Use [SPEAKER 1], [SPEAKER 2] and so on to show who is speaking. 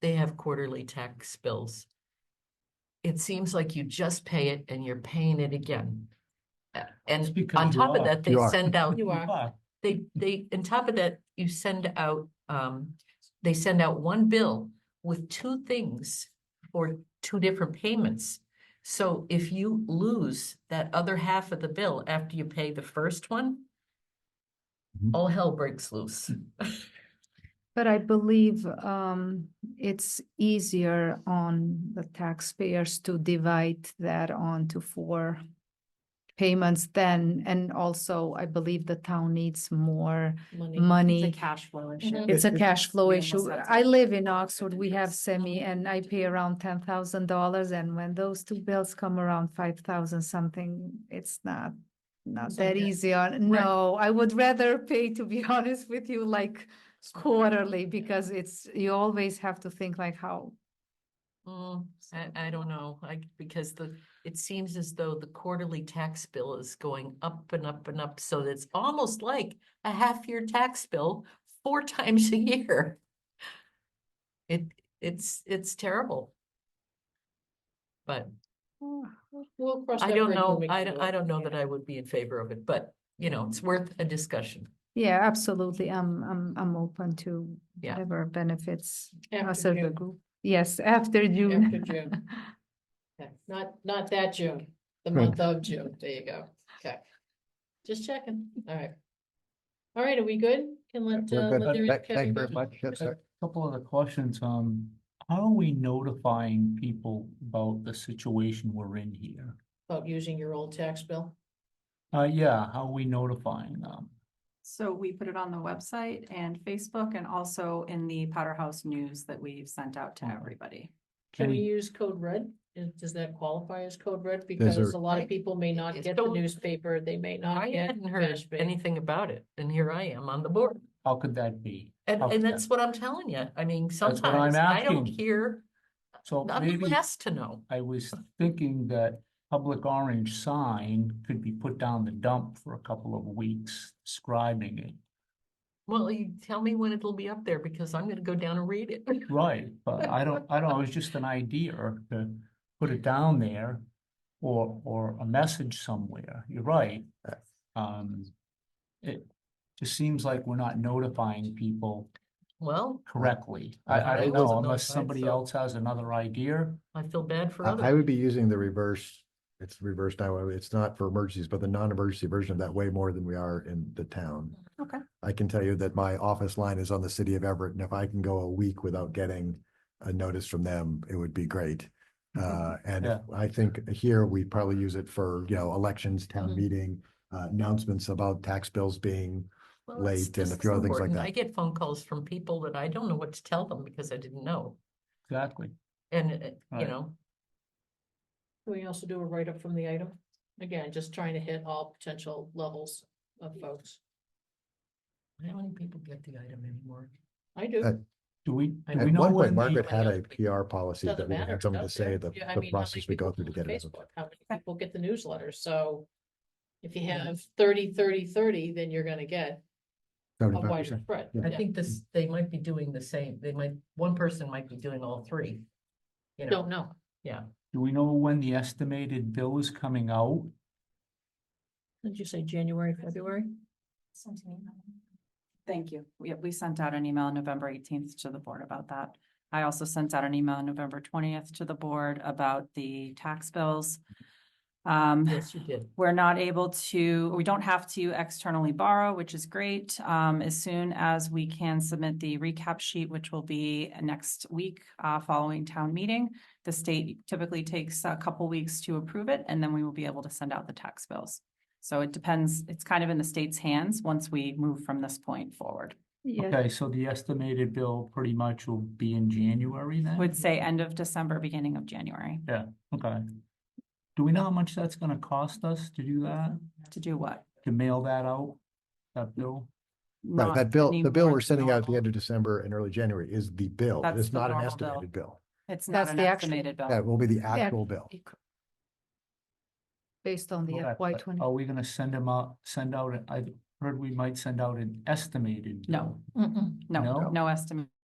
[SPEAKER 1] they have quarterly tax bills. It seems like you just pay it and you're paying it again. Uh,
[SPEAKER 2] It's
[SPEAKER 1] And
[SPEAKER 2] because
[SPEAKER 1] on
[SPEAKER 2] you
[SPEAKER 1] top of
[SPEAKER 2] are.
[SPEAKER 1] that, they
[SPEAKER 3] You are.
[SPEAKER 1] send out,
[SPEAKER 4] You are.
[SPEAKER 2] But
[SPEAKER 1] they, they, on top of that, you send out, um, they send out one bill with two things or two different payments. So if you lose that other half of the bill after you pay the first one,
[SPEAKER 2] Mm-hmm.
[SPEAKER 3] Mhm.
[SPEAKER 1] all hell breaks loose.
[SPEAKER 4] But I believe um, it's easier on the taxpayers to divide that onto four payments then, and also I believe the town needs more
[SPEAKER 5] It's a
[SPEAKER 4] money.
[SPEAKER 5] cash flow issue.
[SPEAKER 1] Mhm.
[SPEAKER 4] It's a cash flow
[SPEAKER 5] we almost
[SPEAKER 4] issue.
[SPEAKER 5] had to-
[SPEAKER 4] I live in Oxford, we have semi, and I pay around ten thousand dollars, and when those two bills come around five thousand something, it's not not
[SPEAKER 1] It's not
[SPEAKER 4] that
[SPEAKER 1] good.
[SPEAKER 4] easy on, no, I would rather pay, to be honest with you, like quarterly, because it's, you always have to think like how,
[SPEAKER 1] Mm, I, I don't know, like, because the, it seems as though the quarterly tax bill is going up and up and up, so that's almost like a half-year tax bill four times a year. It, it's, it's terrible. But
[SPEAKER 5] We'll cross
[SPEAKER 1] I
[SPEAKER 5] that
[SPEAKER 1] don't
[SPEAKER 5] bridge when
[SPEAKER 1] know,
[SPEAKER 5] we
[SPEAKER 1] I,
[SPEAKER 5] get
[SPEAKER 1] don't-
[SPEAKER 5] to
[SPEAKER 1] I
[SPEAKER 5] it.
[SPEAKER 1] don't know that I would be in favor of it, but, you know, it's worth a discussion.
[SPEAKER 4] yeah, absolutely, I'm, I'm, I'm open to
[SPEAKER 1] Yeah.
[SPEAKER 4] whatever benefits
[SPEAKER 5] After
[SPEAKER 4] us as a
[SPEAKER 5] June.
[SPEAKER 4] group. Yes, after June.
[SPEAKER 5] After June. Okay, Not, not that June, the
[SPEAKER 3] Right.
[SPEAKER 5] month of June, there you go, okay. Just checking, all right. All right, are we good? Can let, uh,
[SPEAKER 3] Good,
[SPEAKER 5] let
[SPEAKER 3] good,
[SPEAKER 5] the
[SPEAKER 3] Thank
[SPEAKER 5] Kevin
[SPEAKER 3] thank you
[SPEAKER 5] go.
[SPEAKER 3] very much. Yes,
[SPEAKER 2] a
[SPEAKER 3] sir.
[SPEAKER 2] couple other questions, um, how are we notifying people about the situation we're in here?
[SPEAKER 5] About using your old tax bill?
[SPEAKER 2] Uh, yeah, how are we notifying them?
[SPEAKER 6] So we put it on the website and Facebook and also in the Powderhouse News that we've sent out to
[SPEAKER 2] Mhm.
[SPEAKER 6] everybody.
[SPEAKER 5] Can we
[SPEAKER 2] Any-
[SPEAKER 5] use code red? Is- Does that qualify as code red? Because
[SPEAKER 3] are-
[SPEAKER 5] a lot of people may not
[SPEAKER 1] It's
[SPEAKER 5] get the
[SPEAKER 1] don't-
[SPEAKER 5] newspaper, they may not
[SPEAKER 1] I
[SPEAKER 5] get.
[SPEAKER 1] hadn't heard
[SPEAKER 5] cash pay.
[SPEAKER 1] anything about it, and here I am on the board.
[SPEAKER 2] How could that be?
[SPEAKER 1] And,
[SPEAKER 2] How could
[SPEAKER 1] and
[SPEAKER 2] that-
[SPEAKER 1] that's what I'm telling you. I mean,
[SPEAKER 2] Oh, what I'm
[SPEAKER 1] sometimes I don't
[SPEAKER 2] asking.
[SPEAKER 1] hear,
[SPEAKER 2] So
[SPEAKER 1] I'm
[SPEAKER 2] maybe
[SPEAKER 1] asked to know.
[SPEAKER 2] I was thinking that public orange sign could be put down the dump for a couple of weeks, describing it.
[SPEAKER 1] Well, you tell me when it'll be up there because I'm gonna go down and read it.
[SPEAKER 2] Right, but I don't, I don't, it was just an idea to put it down there or, or a message somewhere, you're right. Um, it just seems like we're not notifying people
[SPEAKER 1] Well,
[SPEAKER 2] correctly. I, I
[SPEAKER 1] I
[SPEAKER 2] don't know,
[SPEAKER 1] wasn't
[SPEAKER 2] unless
[SPEAKER 1] notified,
[SPEAKER 2] somebody
[SPEAKER 1] so-
[SPEAKER 2] else has another idea.
[SPEAKER 1] I feel bad for
[SPEAKER 3] I I
[SPEAKER 1] others.
[SPEAKER 3] would be using the reverse, it's reversed now, it's not for emergencies, but the non-emergency version of that way more than we are in the town.
[SPEAKER 6] Okay.
[SPEAKER 3] I can tell you that my office line is on the city of Everett, and if I can go a week without getting a notice from them, it would be great. Uh, and
[SPEAKER 2] Yeah.
[SPEAKER 3] I think here we probably use it for, you know, elections, town
[SPEAKER 1] Mhm.
[SPEAKER 3] meeting, uh, announcements about tax bills being,
[SPEAKER 1] Well, it's-
[SPEAKER 3] late and
[SPEAKER 1] this
[SPEAKER 3] a
[SPEAKER 1] is
[SPEAKER 3] few other things like
[SPEAKER 1] important.
[SPEAKER 3] that.
[SPEAKER 1] I get phone calls from people that I don't know what to tell them because I didn't know.
[SPEAKER 2] Exactly.
[SPEAKER 1] And, uh, you
[SPEAKER 2] Right.
[SPEAKER 1] know,
[SPEAKER 5] Can we also do a write-up from the item? Again, just trying to hit all potential levels of folks.
[SPEAKER 1] how many people get the item anymore?
[SPEAKER 5] I do.
[SPEAKER 3] Uh,
[SPEAKER 2] Do we,
[SPEAKER 5] I
[SPEAKER 2] do we
[SPEAKER 5] know
[SPEAKER 3] at one
[SPEAKER 2] know
[SPEAKER 3] point,
[SPEAKER 2] when
[SPEAKER 3] Margaret
[SPEAKER 2] the,
[SPEAKER 3] had
[SPEAKER 1] Everybody
[SPEAKER 3] a
[SPEAKER 1] else, we-
[SPEAKER 3] PR policy that
[SPEAKER 5] Doesn't
[SPEAKER 3] we
[SPEAKER 5] matter.
[SPEAKER 3] had
[SPEAKER 5] it's
[SPEAKER 3] someone
[SPEAKER 5] out
[SPEAKER 3] to say
[SPEAKER 5] there. Yeah, I
[SPEAKER 3] the, the
[SPEAKER 5] mean, how many
[SPEAKER 3] process we go
[SPEAKER 5] people
[SPEAKER 3] through to
[SPEAKER 5] on
[SPEAKER 3] get it.
[SPEAKER 5] Facebook? How many people get the newsletter? So if you have 30, 30, 30, then you're gonna get a
[SPEAKER 3] Seventy-five
[SPEAKER 5] wider
[SPEAKER 3] percent.
[SPEAKER 5] spread.
[SPEAKER 3] Yeah.
[SPEAKER 1] I
[SPEAKER 5] Yeah.
[SPEAKER 1] think this, they might be doing the same. They might, one person might be doing all three. You know,
[SPEAKER 5] Don't know.
[SPEAKER 2] do we know when the estimated bill is coming out?
[SPEAKER 5] Did you say January, February?
[SPEAKER 6] Thank you. We, we sent out an email on November eighteenth to the board about that. I also sent out an email on November twentieth to the board about the tax bills. Um,
[SPEAKER 1] yes, you did.
[SPEAKER 6] we're not able to, we don't have to externally borrow, which is great. Um, as soon as we can submit the recap sheet, which will be next week, uh, following town meeting. The state typically takes a couple weeks to approve it, and then we will be able to send out the tax bills. So it depends, it's kind of in the state's hands once we move from this point forward.
[SPEAKER 4] Yes.
[SPEAKER 2] Okay, so the estimated bill pretty much will be in January then?
[SPEAKER 6] Would say end of December, beginning of January.
[SPEAKER 2] Okay. Do we know how much that's gonna cost us to do that,
[SPEAKER 6] To do what?
[SPEAKER 2] to mail that out, that bill?
[SPEAKER 3] Right,
[SPEAKER 6] Not
[SPEAKER 3] that bill, the bill
[SPEAKER 6] anymore,
[SPEAKER 3] we're sending out at the
[SPEAKER 6] no.
[SPEAKER 3] end of December and early January is the bill.
[SPEAKER 6] That's
[SPEAKER 3] It's
[SPEAKER 6] the
[SPEAKER 3] not an
[SPEAKER 6] normal bill. Oh.
[SPEAKER 3] estimated bill.
[SPEAKER 6] It's
[SPEAKER 4] That's
[SPEAKER 6] not an
[SPEAKER 4] the actual-
[SPEAKER 6] estimated bill.
[SPEAKER 3] That will be the actual bill.
[SPEAKER 4] Based on the
[SPEAKER 2] Okay,
[SPEAKER 4] FY
[SPEAKER 2] but
[SPEAKER 4] twenty.
[SPEAKER 2] Are we gonna send them out, send out, an- I heard we might send out an estimated
[SPEAKER 6] No.
[SPEAKER 2] bill.
[SPEAKER 6] No,
[SPEAKER 2] No?
[SPEAKER 6] no estimate.